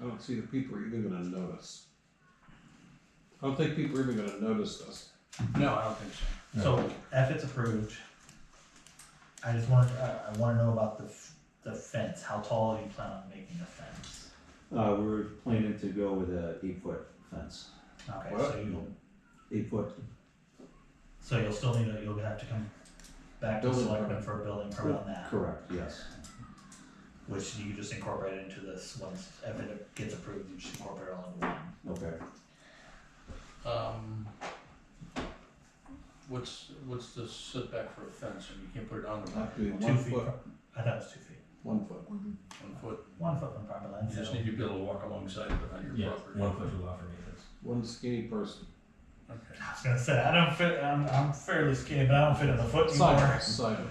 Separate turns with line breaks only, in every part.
don't see that people are even gonna notice. I don't think people are even gonna notice this.
No, I don't think so.
So if it's approved, I just want, I, I wanna know about the, f- the fence, how tall do you plan on making the fence?
Uh, we were planning to go with a eight foot fence,
Okay,
What?
so you'll,
eight foot.
so you'll still need, a- you'll have to come back to
Building
selectmen
permit.
for a building permit on that,
Correct, yes.
which you just incorporate into this, once, if it gets approved, you just incorporate it all into one.
Okay.
Um, what's, what's the setback for a fence, and you can't put it on the back,
Have to be
Two
one
feet
foot,
from- I thought it was two feet,
one foot.
one foot,
one foot from property line,
you just
so,
need to be able to walk alongside it, but on
Yeah,
your property.
one foot rule off for me, that's.
One skinny person.
Okay,
I was gonna say, I don't fit, I'm, I'm fairly skinny, but I don't fit in the foot anymore.
Sideways, sideways.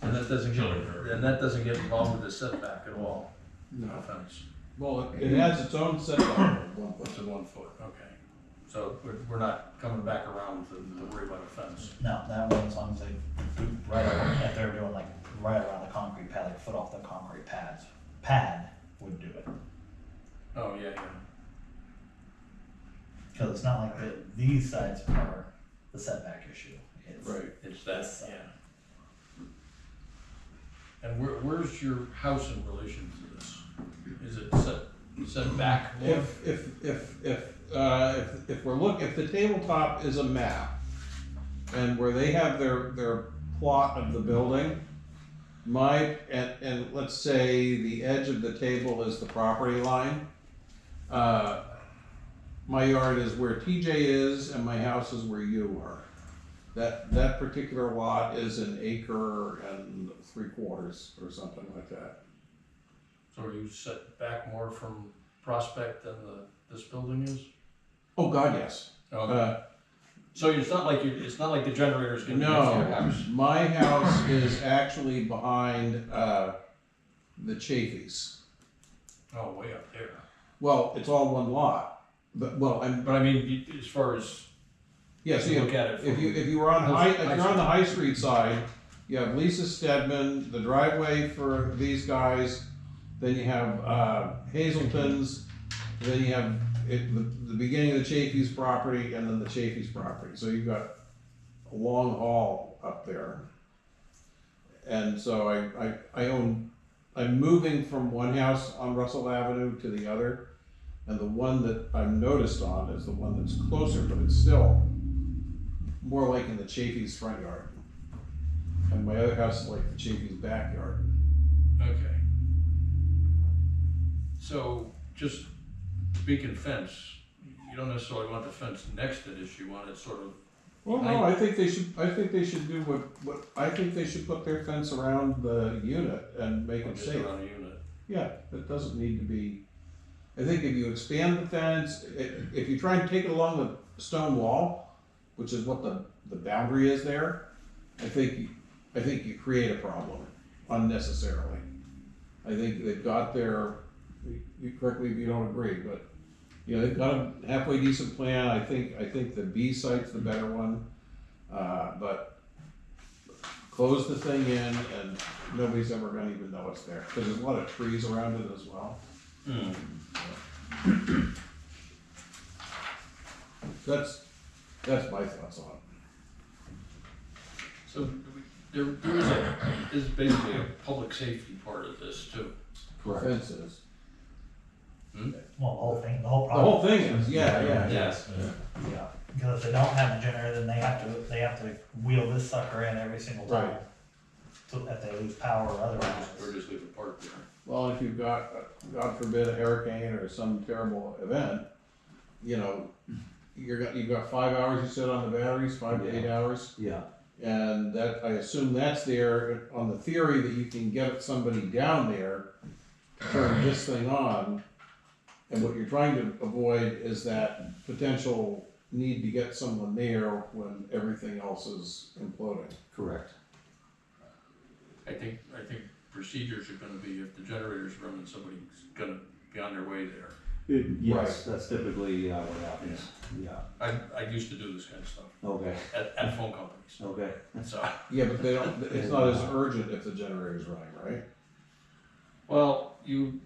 and that doesn't get,
Children are-
and that doesn't get involved with the setback at all, no
No.
fence,
Well, it- it has its own setback of one
it's
foot.
a one foot, okay. So we're, we're not coming back around to, to worry about a fence.
No, that one, as long as they do right around, if they're doing like right around the concrete pad, like foot off the concrete pads, pad would do it.
Oh, yeah, yeah,
Cause it's not like the, these sides are the setback issue. It's-
Right.
it's that,
This side.
yeah. And where, where's your house in relation to this? Is it set, set back? more?
If, if, if, if, uh, if, if we're look, if the tabletop is a map, and where they have their, their plot of the building, my, and, and let's say the edge of the table is the property line, uh, my yard is where TJ is and my house is where you are. That, that particular lot is an acre and three quarters or something like that.
So are you set back more from Prospect than the, this building is?
Oh, God, yes.
Oh,
Uh,
so it's not like, you- it's not like the generator is gonna be next to your
No,
house?
my house is actually behind uh, the Chafees.
Oh, way up there.
Well, it's all one lot, but well, I'm
But I mean, you- as far as,
yeah. So
you
you
look at it
if you
from,
if you were on
Those
high, if
high
you're on the High Street side, you have Lisa Stedman, the driveway for these guys, then you have uh, Hazelton's, then you have it, the, the beginning of the Chafees property, and then the Chafees property. So you've got a long haul up there. And so I, I, I own, I'm moving from one house on Russell Avenue to the other. And the one that I'm noticed on is the one that's closer, but it's still more like in the Chafee's front yard. And my other house is like the Chafee's backyard.
okay. So just speaking fence, you don't necessarily want the fence next to this, you want it sort of,
Well, no, I think they should, I think they should do what, what, I think they should put their fence around the unit and make it
just
safe.
around a unit.
Yeah, it doesn't need to be, I think if you expand the fence, i- if you try and take it along the stone wall, which is what the, the boundary is there, I think, I think you create a problem unnecessarily. I think they've got their, you- you correct me if you don't agree, but, you know, they've got a halfway decent plan, I think, I think the B site's the better one. Uh, but close the thing in and nobody's ever gonna even know it's there, because there's a lot of trees around it as well. Hmm. That's, that's my thoughts on it.
So do we- there, there is a, is basically a public safety part of this too.
Fences.
Well, the whole thing, the whole
The whole
problem,
thing is, yeah, yeah, yeah.
Yes.
yeah, cause if they don't have a generator, then they have to, they have to wheel this sucker in every single time.
Right.
So if they lose power or otherwise.
Or just leave it parked there.
Well, if you've got, God forbid, a hurricane or some terrible event, you know, you're got, you've got five hours you sit on the batteries, five to eight hours.
Yeah,
And that, I assume that's there on the theory that you can get somebody down there, to turn this thing on. And what you're trying to avoid is that potential need to get someone there when everything else is imploding.
correct.
I think, I think procedures are gonna be if the generator's running, somebody's gonna be on their way there.
Yes, that's typically uh, what happens. Yeah,
I, I used to do this kind of stuff
okay,
at, at phone companies,
okay.
so.
Yeah, but they don't, it's not as urgent if the generator's running, right?
Well, you,